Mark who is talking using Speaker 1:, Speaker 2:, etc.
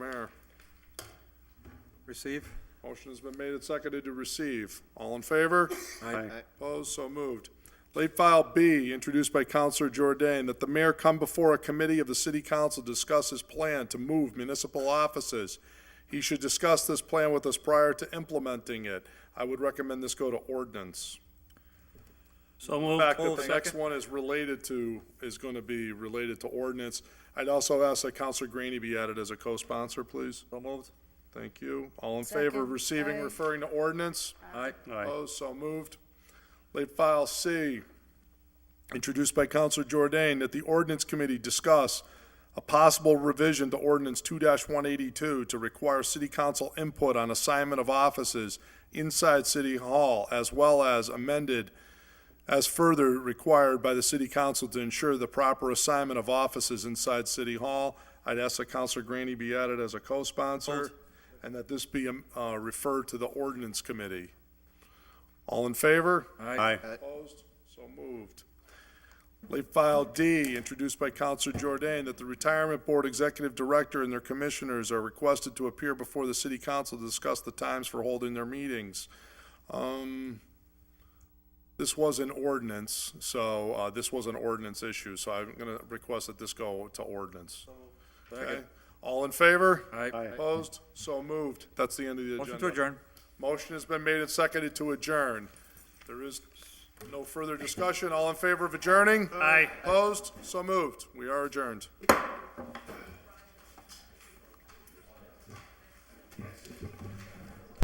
Speaker 1: Receive.
Speaker 2: Motion's been made and seconded to receive. All in favor?
Speaker 1: Aye.
Speaker 2: Opposed, so moved. Late file B, introduced by Counselor Jordan, that the mayor come before a committee of the city council to discuss his plan to move municipal offices. He should discuss this plan with us prior to implementing it. I would recommend this go to ordinance.
Speaker 3: So moved.
Speaker 2: The fact that the next one is related to, is going to be related to ordinance. I'd also ask that Counselor Greeny be added as a co-sponsor, please.
Speaker 1: So moved.
Speaker 2: Thank you. All in favor of
Speaker 4: Second.
Speaker 2: receiving,
Speaker 4: Aye.
Speaker 2: referring to ordinance?
Speaker 1: Aye.
Speaker 3: Aye.
Speaker 2: Opposed, so moved. Late file C, introduced by Counselor Jordan, that the ordinance committee discuss a possible revision to ordinance two one eighty-two to require city council input on assignment of offices inside city hall, as well as amended as further required by the city council to ensure the proper assignment of offices inside city hall. I'd ask that Counselor Granny be added as a co-sponsor, and that this be, um, uh, referred to the ordinance committee. All in favor?
Speaker 1: Aye.
Speaker 2: Opposed? So moved. Late file D, introduced by Counselor Jordan, that the Retirement Board Executive Director and their commissioners are requested to appear before the city council to discuss the times for holding their meetings. Um, This was an ordinance, so, uh, this was an ordinance issue, so I'm gonna request that this go to ordinance. Okay? All in favor?
Speaker 1: Aye.
Speaker 2: Opposed? So moved. That's the end of the agenda.
Speaker 1: Motion to adjourn.
Speaker 2: Motion has been made and seconded to adjourn. There is no further discussion. All in favor of adjourning? Aye. Opposed? So moved. We are adjourned.